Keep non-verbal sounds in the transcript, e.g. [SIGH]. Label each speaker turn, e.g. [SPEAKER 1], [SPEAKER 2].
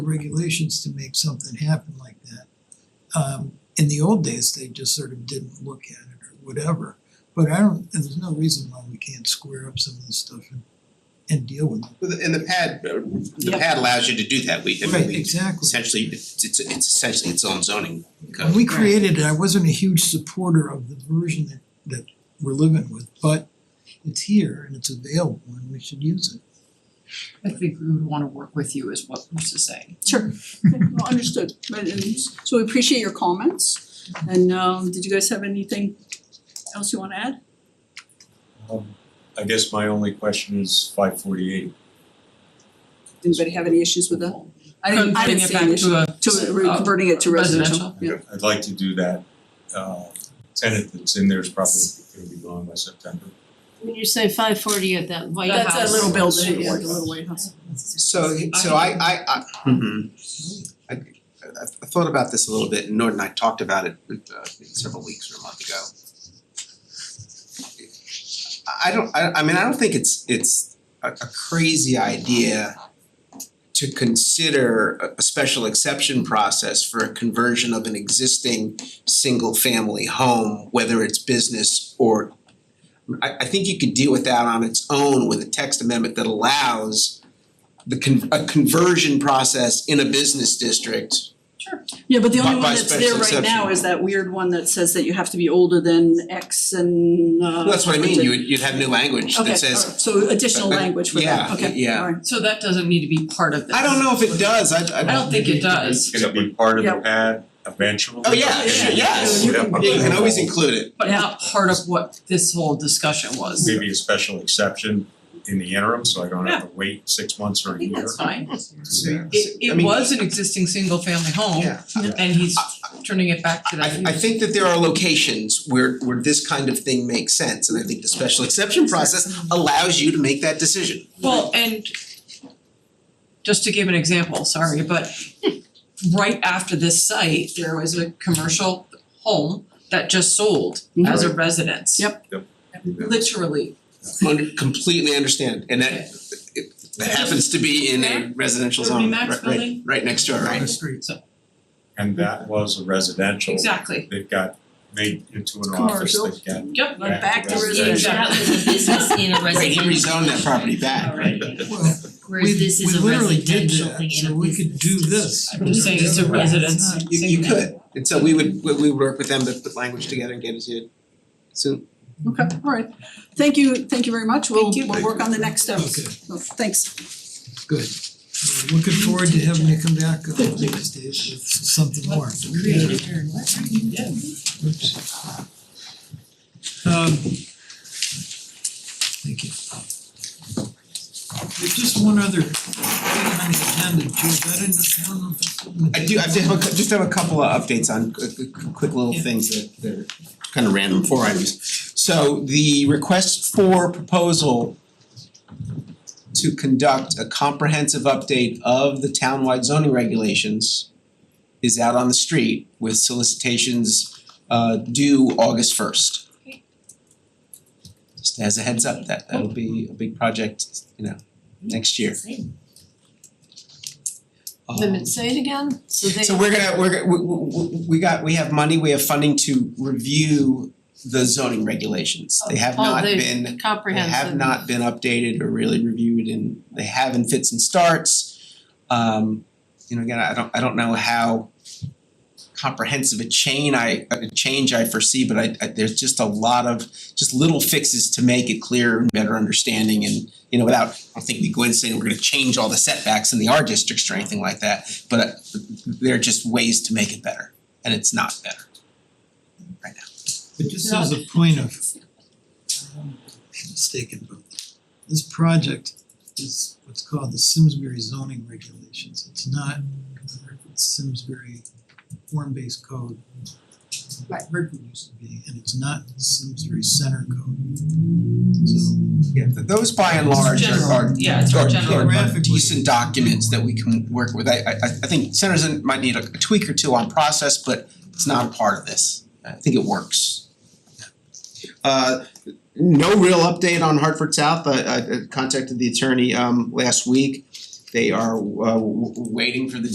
[SPEAKER 1] regulations to make something happen like that. Um in the old days, they just sort of didn't look at it or whatever, but I don't, and there's no reason why we can't square up some of this stuff and and deal with it.
[SPEAKER 2] Well, the- and the pad, uh, the
[SPEAKER 3] Yeah.
[SPEAKER 2] pad allows you to do that, we, I mean,
[SPEAKER 1] Right,
[SPEAKER 2] we
[SPEAKER 1] exactly.
[SPEAKER 2] essentially, it's it's it's essentially its own zoning
[SPEAKER 1] When
[SPEAKER 2] code.
[SPEAKER 1] we created it, I wasn't a huge supporter of the version that that we're living with, but it's here and it's available and we should use it.
[SPEAKER 3] I think we would wanna work with you is what Bruce is saying.
[SPEAKER 4] Sure, Okay, well, [LAUGHS] understood, but and so we appreciate your comments and um did you guys have anything else you wanna add?
[SPEAKER 5] Um I guess my only question is five forty eight.
[SPEAKER 4] Anybody have any issues with that? I didn't I didn't see
[SPEAKER 3] Turning
[SPEAKER 4] any
[SPEAKER 3] it
[SPEAKER 4] issue
[SPEAKER 3] back
[SPEAKER 4] to
[SPEAKER 3] to a
[SPEAKER 4] re- converting it to
[SPEAKER 3] uh,
[SPEAKER 4] residential, yeah.
[SPEAKER 5] I'd I'd like to do that. Uh tenant that's in there is probably gonna be gone by September.
[SPEAKER 6] When you say five forty at that White House.
[SPEAKER 4] That's that little building, yeah, the
[SPEAKER 5] White
[SPEAKER 4] little White House.
[SPEAKER 2] So so I I I
[SPEAKER 1] Mhm.
[SPEAKER 2] I I I thought about this a little bit, and Nord and I talked about it uh several weeks or a month ago. I- I don't, I I mean, I don't think it's it's a a crazy idea to consider a a special exception process for a conversion of an existing single family home, whether it's business or I I think you could deal with that on its own with a text amendment that allows the con- a conversion process in a business district.
[SPEAKER 4] Yeah, but the
[SPEAKER 2] By-
[SPEAKER 4] only
[SPEAKER 2] by
[SPEAKER 4] one that's
[SPEAKER 2] special
[SPEAKER 4] there right now
[SPEAKER 2] exception.
[SPEAKER 4] is that weird one that says that you have to be older than X and uh.
[SPEAKER 2] Well, that's what I mean,
[SPEAKER 4] something.
[SPEAKER 2] you would you'd have new language that
[SPEAKER 4] Okay, all
[SPEAKER 2] says,
[SPEAKER 4] right, so additional
[SPEAKER 2] Uh, uh,
[SPEAKER 4] language for that,
[SPEAKER 2] yeah,
[SPEAKER 4] okay,
[SPEAKER 2] yeah.
[SPEAKER 4] all right.
[SPEAKER 3] So that doesn't need to be part of this.
[SPEAKER 2] I don't know if it does, I
[SPEAKER 4] Oh.
[SPEAKER 3] I don't think it does,
[SPEAKER 5] It's gonna be part of
[SPEAKER 4] Yeah.
[SPEAKER 5] the pad eventually.
[SPEAKER 2] Oh, yeah,
[SPEAKER 4] yeah,
[SPEAKER 2] yes.
[SPEAKER 4] you can-
[SPEAKER 2] You can always include it.
[SPEAKER 3] but
[SPEAKER 4] Yeah.
[SPEAKER 3] not part of what this whole discussion was.
[SPEAKER 5] Maybe a special exception in the interim, so I don't have to wait six months or
[SPEAKER 3] I
[SPEAKER 5] a
[SPEAKER 3] think
[SPEAKER 5] year.
[SPEAKER 3] that's fine.
[SPEAKER 2] So-
[SPEAKER 3] It
[SPEAKER 2] I
[SPEAKER 3] it
[SPEAKER 2] mean-
[SPEAKER 3] was an existing single family home
[SPEAKER 2] Yeah.
[SPEAKER 3] and he's turning it back to that
[SPEAKER 2] I I think that there are locations where where this kind of thing makes sense, and I think the special exception process allows you to make that decision.
[SPEAKER 3] Well, and just to give an example, sorry, but right after this site, there was a commercial home that just sold as a residence.
[SPEAKER 4] Yep.
[SPEAKER 5] Yep.
[SPEAKER 3] Literally,
[SPEAKER 2] Under- completely understand, and that it that happens to be in a residential
[SPEAKER 3] Would it be
[SPEAKER 2] zone, right
[SPEAKER 3] Max
[SPEAKER 2] right
[SPEAKER 3] building?
[SPEAKER 2] right next door,
[SPEAKER 1] On the
[SPEAKER 2] right?
[SPEAKER 1] street.
[SPEAKER 5] And that was a residential.
[SPEAKER 3] exactly,
[SPEAKER 5] They've got made into an office,
[SPEAKER 4] Commercial.
[SPEAKER 5] they've got
[SPEAKER 3] yep,
[SPEAKER 4] But
[SPEAKER 5] Right.
[SPEAKER 4] back to
[SPEAKER 5] Yeah,
[SPEAKER 4] residential.
[SPEAKER 7] That was a business in a
[SPEAKER 2] [LAUGHS] Right, he
[SPEAKER 7] residential.
[SPEAKER 2] rezoned that property back, right?
[SPEAKER 7] Already.
[SPEAKER 1] Well,
[SPEAKER 7] whereas this is a
[SPEAKER 1] we we literally did
[SPEAKER 7] residential thing in a
[SPEAKER 1] that, so we could
[SPEAKER 7] business
[SPEAKER 1] do
[SPEAKER 7] district.
[SPEAKER 1] this.
[SPEAKER 3] I'm just saying it's a
[SPEAKER 1] Yeah.
[SPEAKER 3] residence.
[SPEAKER 1] It's not-
[SPEAKER 2] You you could, and so we would, we we would work with them to put language together and get it to you soon.
[SPEAKER 4] Okay, all right. Thank you, thank you very much. We'll
[SPEAKER 2] you.
[SPEAKER 4] we'll work on the next steps.
[SPEAKER 1] Okay.
[SPEAKER 4] So, Thanks.
[SPEAKER 1] Good. We're Looking forward to having you come back on these days with something more. Oops. Um. Thank you. There's just one other thing on the agenda, George, I didn't, I don't know if it's on the-
[SPEAKER 2] I do, I just have a, cou- just have a couple of updates on quick, quick- quick little
[SPEAKER 1] Yeah.
[SPEAKER 2] things that that are kind of random, four items. So the request for proposal to conduct a comprehensive update of the townwide zoning regulations is out on the street with solicitations uh due August first. Just as a heads up, that that'll be a big project, you know, next year. Um,
[SPEAKER 6] Wait a minute, say it again, so they.
[SPEAKER 2] so we're gonna, we're, we, we, we got, we have money, we have funding to review the zoning regulations. They have
[SPEAKER 6] Oh,
[SPEAKER 2] not
[SPEAKER 6] they-
[SPEAKER 2] been, they
[SPEAKER 6] Comprehensive.
[SPEAKER 2] have not been updated or really reviewed and they have in fits and starts. Um, you know, again, I don't, I don't know how comprehensive a chain I, a change I foresee, but I, I, there's just a lot of, just little fixes to make it clearer and better understanding and, you know, without, I don't think we go in saying we're gonna change all the setbacks in the R districts or anything like that but uh, there are just ways to make it better, and it's not better.
[SPEAKER 1] But just as a point of, um, mistaken, but this project is what's called the Simsbury zoning regulations. It's not the Simsbury form-based code. Right. Redwood used to be, and it's not Simsbury center code. So
[SPEAKER 2] Yeah, th- those by and large are
[SPEAKER 3] general.
[SPEAKER 2] are
[SPEAKER 3] Yeah, it's
[SPEAKER 2] are-
[SPEAKER 3] general.
[SPEAKER 2] are- are
[SPEAKER 1] Geographically.
[SPEAKER 2] decent documents that we can work with. I I I I think centers in- might need a tweak or two on process, but it's not a part of this. I think it works. Uh no real update on Hartford South. I I I contacted the attorney um last week. They are uh w- w- waiting for the